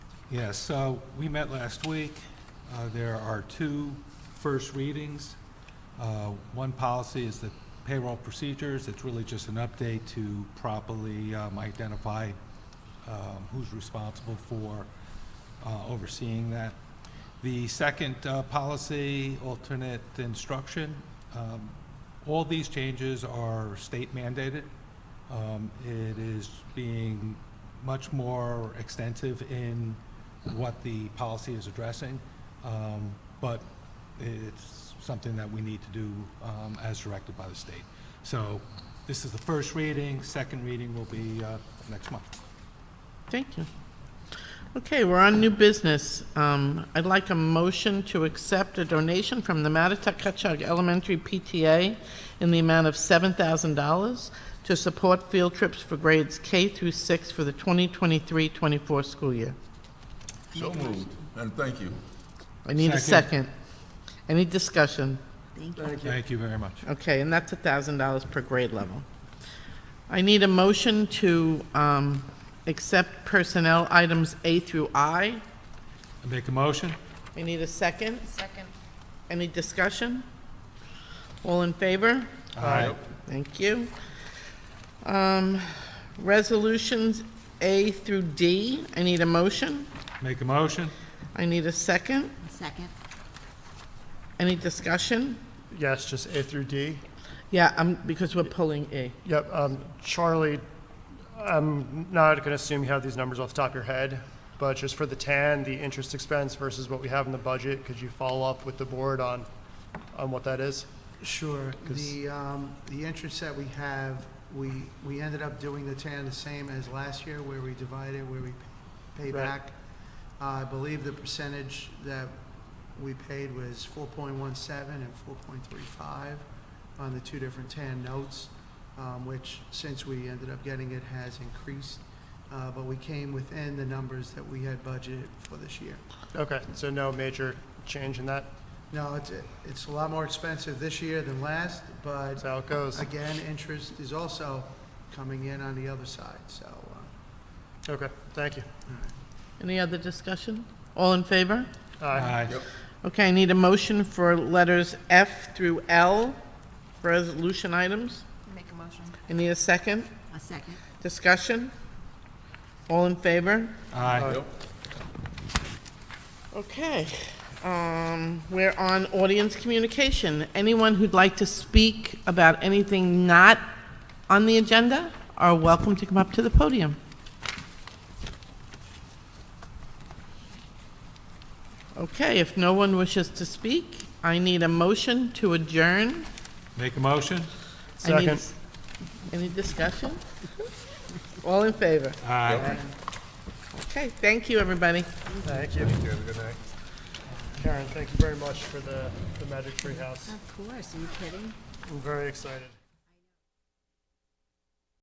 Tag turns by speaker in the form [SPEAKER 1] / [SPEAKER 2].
[SPEAKER 1] Yes, so we met last week. Uh, There are two first readings. Uh, One policy is the payroll procedures. It's really just an update to properly um, identify um, who's responsible for uh, overseeing that. The second uh, policy, alternate instruction, um, all these changes are state mandated. Um, It is being much more extensive in what the policy is addressing, um, but it's something that we need to do um, as directed by the state. So this is the first reading, second reading will be uh, next month.
[SPEAKER 2] Thank you. Okay, we're on new business. Um, I'd like a motion to accept a donation from the Matituck Cutchug Elementary PTA in the amount of $7,000 to support field trips for grades K through 6 for the 2023-24 school year.
[SPEAKER 3] So moved, and thank you.
[SPEAKER 2] I need a
[SPEAKER 1] Second.
[SPEAKER 2] second. Any discussion?
[SPEAKER 1] Thank you very much.
[SPEAKER 2] Okay, and that's $1,000 per grade level. I need a motion to um, accept personnel items A through I.
[SPEAKER 1] I Make a motion?
[SPEAKER 2] I need a second.
[SPEAKER 4] Second.
[SPEAKER 2] Any discussion? All in favor?
[SPEAKER 1] Aye.
[SPEAKER 2] Thank you. Um, Resolutions A through D, I need a motion.
[SPEAKER 1] Make a motion?
[SPEAKER 2] I need a second.
[SPEAKER 4] Second.
[SPEAKER 2] Any discussion?
[SPEAKER 5] Yes, just A through D.
[SPEAKER 2] Yeah, um, because we're pulling E.
[SPEAKER 5] Yep, um, Charlie, I'm not going to assume you have these numbers off the top of your head, but just for the tan, the interest expense versus what we have in the budget, could you follow up with the board on, on what that is?
[SPEAKER 6] Sure.
[SPEAKER 5] 'Cause-
[SPEAKER 6] The, um, the entrance that we have, we, we ended up doing the tan the same as last year, where we divide it, where we pay
[SPEAKER 5] Right.
[SPEAKER 6] back. Uh, I believe the percentage that we paid was four point one seven and four point three five on the two different tan notes, um, which, since we ended up getting it, has increased. Uh, but we came within the numbers that we had budgeted for this year.
[SPEAKER 5] Okay, so no major change in that?
[SPEAKER 6] No, it's, it's a lot more expensive this year than last, but
[SPEAKER 5] That's how it goes?
[SPEAKER 6] Again, interest is also coming in on the other side, so, uh,
[SPEAKER 5] Okay, thank you.
[SPEAKER 2] Any other discussion? All in favor?
[SPEAKER 5] Aye.
[SPEAKER 2] Okay, I need a motion for letters F through L, resolution items.
[SPEAKER 4] Make a motion.
[SPEAKER 2] I need a second.
[SPEAKER 4] A second.
[SPEAKER 2] Discussion? All in favor?
[SPEAKER 1] Aye.
[SPEAKER 2] Okay, um, we're on audience communication. Anyone who'd like to speak about anything not on the agenda are welcome to come up to the podium. Okay, if no one wishes to speak, I need a motion to adjourn.
[SPEAKER 1] Make a motion?
[SPEAKER 2] I need-
[SPEAKER 5] Second.
[SPEAKER 2] Any discussion? All in favor?
[SPEAKER 1] Aye.
[SPEAKER 2] Okay, thank you, everybody.
[SPEAKER 5] Thank you. Have a good night. Karen, thank you very much for the, the Magic Tree House.
[SPEAKER 4] Of course, are you kidding?
[SPEAKER 5] I'm very excited.